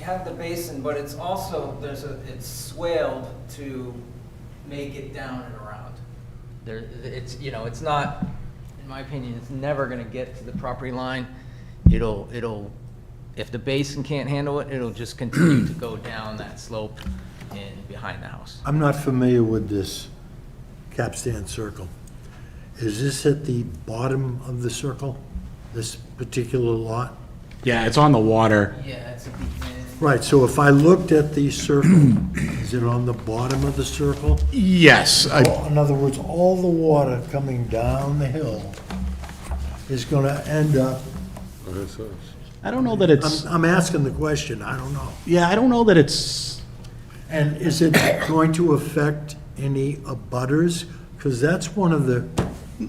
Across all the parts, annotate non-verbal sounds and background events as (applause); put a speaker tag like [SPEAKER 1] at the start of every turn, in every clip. [SPEAKER 1] had the basin, but it's also, there's a, it's swaled to make it down and around. There, it's, you know, it's not, in my opinion, it's never gonna get to the property line. It'll, it'll, if the basin can't handle it, it'll just continue to go down that slope and behind the house.
[SPEAKER 2] I'm not familiar with this capstan circle. Is this at the bottom of the circle, this particular lot?
[SPEAKER 3] Yeah, it's on the water.
[SPEAKER 1] Yeah, it's a deep end.
[SPEAKER 2] Right, so if I looked at the
[SPEAKER 4] (clears throat)
[SPEAKER 2] circle, is it on the bottom of the circle?
[SPEAKER 3] Yes, I-
[SPEAKER 2] In other words, all the water coming down the hill is going to end up,
[SPEAKER 3] I don't know that
[SPEAKER 2] I'm,
[SPEAKER 3] it's,
[SPEAKER 2] I'm asking the question, I don't know.
[SPEAKER 3] yeah, I don't know that it's,
[SPEAKER 2] And is it going to affect any abutters? Because that's one of the,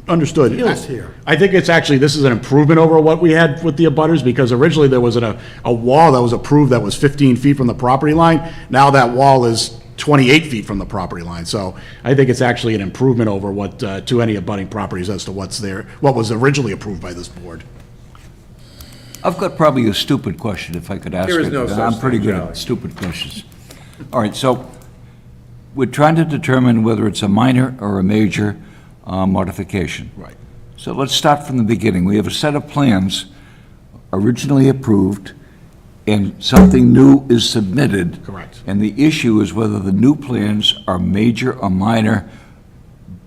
[SPEAKER 3] understood.
[SPEAKER 2] Feels here.
[SPEAKER 3] I think it's actually, this is an improvement over what we had with the abutters, because originally there was a, a wall that was approved that was 15 feet from the property line. Now that wall is 28 feet from the property line, so I think it's actually an improvement over what, uh, to any abutting properties as to what's there, what was originally approved by this board.
[SPEAKER 5] I've got probably a stupid question if I could ask it.
[SPEAKER 6] There is no such
[SPEAKER 5] I'm pretty
[SPEAKER 6] thing,
[SPEAKER 5] good
[SPEAKER 6] Charlie.
[SPEAKER 5] at stupid questions. All right, so we're trying to determine whether it's a minor or a major uh, modification.
[SPEAKER 3] Right.
[SPEAKER 5] So let's start from the beginning. We have a set of plans originally approved, and something new is submitted.
[SPEAKER 3] Correct.
[SPEAKER 5] And the issue is whether the new plans are major or minor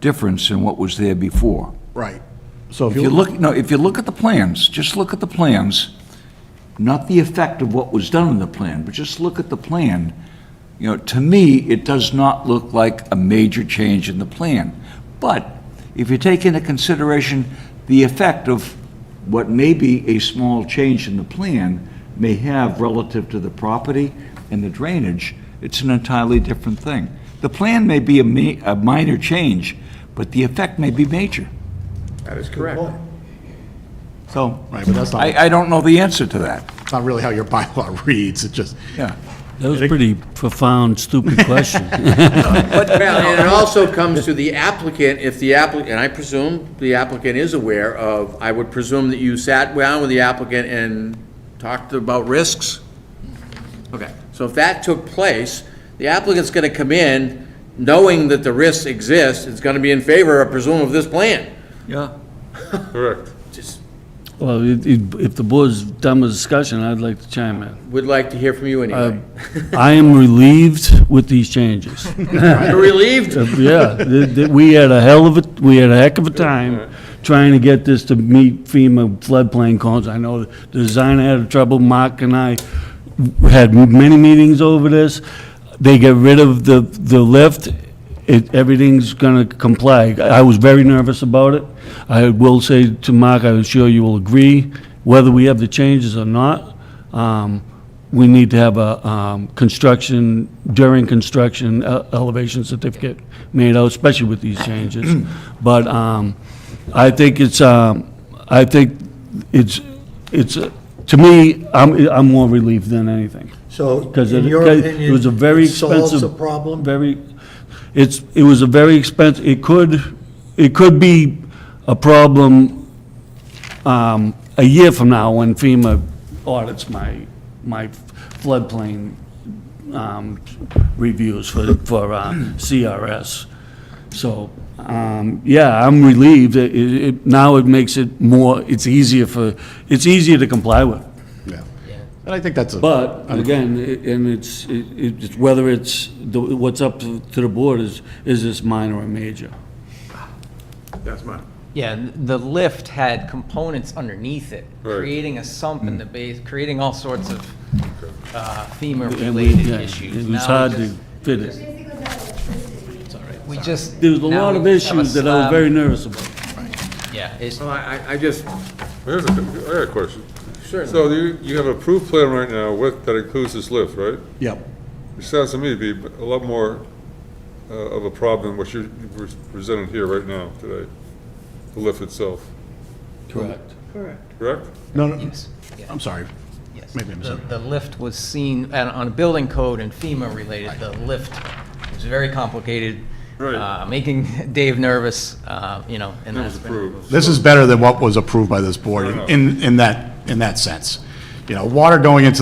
[SPEAKER 5] difference in what was there before.
[SPEAKER 3] Right. So
[SPEAKER 5] If you look, no, if you look at the plans, just look at the plans, not the effect of what was done in the plan, but just look at the plan. You know, to me, it does not look like a major change in the plan. But if you take into consideration the effect of what may be a small change in the plan may have relative to the property and the drainage, it's an entirely different thing. The plan may be a ma, a minor change, but the effect may be major.
[SPEAKER 6] That is correct.
[SPEAKER 5] So,
[SPEAKER 3] Right, but that's not-
[SPEAKER 5] I, I don't know the answer to that.
[SPEAKER 3] It's not really how your bylaw (laughs) reads, it just,
[SPEAKER 5] Yeah.
[SPEAKER 4] That was a pretty profound, stupid question.
[SPEAKER 6] Well, and it also comes to the applicant, if the applicant, and I presume the applicant is aware of, I would presume that you sat down with the applicant and talked about risks? Okay, so if that took place, the applicant's gonna come in knowing that the risks exist, it's gonna be in favor, I presume, of this plan.
[SPEAKER 5] Yeah.
[SPEAKER 7] Correct.
[SPEAKER 4] Well, it- it- if the board's done with discussion, I'd like to chime
[SPEAKER 6] (laughs)
[SPEAKER 4] in.
[SPEAKER 6] Would like to hear from you anyway.
[SPEAKER 4] I am relieved with these changes.
[SPEAKER 6] (laughs) You're Relieved?
[SPEAKER 4] Uh, Yeah, th- th- we had a hell of a, we had a heck of a time trying to get this to meet FEMA floodplain codes. I know the designer had trouble, Mark and I had many meetings over this. They get rid of the, the lift, it, everything's gonna comply. I was very nervous about it. I will say to Mark, I'm sure you will agree, whether we have the changes or not, um, we need to have a um, construction, during construction uh, elevation certificate made out, especially with these changes. (clears throat) But um, I think it's, um, I think it's, it's, uh, to me, I'm, I'm more relieved than anything.
[SPEAKER 2] So,
[SPEAKER 4] Because
[SPEAKER 2] in
[SPEAKER 4] it,
[SPEAKER 2] your
[SPEAKER 4] because it
[SPEAKER 2] opinion,
[SPEAKER 4] was a very
[SPEAKER 2] it solves
[SPEAKER 4] expensive.
[SPEAKER 2] the problem?
[SPEAKER 4] Very, it's, it was a very expensive, it could, it could be a problem, um, a year from now when FEMA audits my, my floodplain, um, reviews for, for, uh, CRS. So, um, yeah, I'm relieved. It, it, now it makes it more, it's easier for, it's easier to comply with.
[SPEAKER 3] yeah. And I think that's a.
[SPEAKER 4] But, again, i- and it's, it- it's, whether it's, the- what's up to to the board is, is this minor or major?
[SPEAKER 7] That's mine.
[SPEAKER 1] Yeah, th- the lift had components underneath it,
[SPEAKER 7] Right.
[SPEAKER 1] creating a sump in the base, creating all sorts of uh,
[SPEAKER 4] Mm. And we-
[SPEAKER 1] FEMA-related
[SPEAKER 4] yeah,
[SPEAKER 1] issues.
[SPEAKER 4] It was
[SPEAKER 1] Now we
[SPEAKER 4] hard to
[SPEAKER 1] just-
[SPEAKER 4] fit it.
[SPEAKER 1] We just.
[SPEAKER 4] There was a
[SPEAKER 1] now
[SPEAKER 4] lot
[SPEAKER 1] we
[SPEAKER 4] of
[SPEAKER 1] just have a
[SPEAKER 4] issues that I was
[SPEAKER 1] slab.
[SPEAKER 4] very nervous about.
[SPEAKER 1] Yeah, it's-
[SPEAKER 7] Oh,
[SPEAKER 6] Well, I, I- I just,
[SPEAKER 7] Here's a, I got a question.
[SPEAKER 6] Sure.
[SPEAKER 7] So you, you have approved plan right now with, that includes this lift, right?
[SPEAKER 3] Yep.
[SPEAKER 7] Which sounds to me to be a lot more uh, of a problem than what you're presented here right now today, the lift itself,
[SPEAKER 4] Correct.
[SPEAKER 7] correct?
[SPEAKER 3] No, no,
[SPEAKER 1] yes, yeah,
[SPEAKER 3] I'm sorry.
[SPEAKER 1] yes.
[SPEAKER 3] maybe I
[SPEAKER 1] The-
[SPEAKER 3] misunderstood.
[SPEAKER 1] The lift was seen, and on a building code and FEMA-related, the lift was very complicated.
[SPEAKER 7] Right.
[SPEAKER 1] uh, Making (laughs) Dave nervous, uh, you know, and
[SPEAKER 7] That was
[SPEAKER 1] that's been.
[SPEAKER 7] approved.
[SPEAKER 3] This is better than what was approved by this board in, in that, in that sense. You know, water going into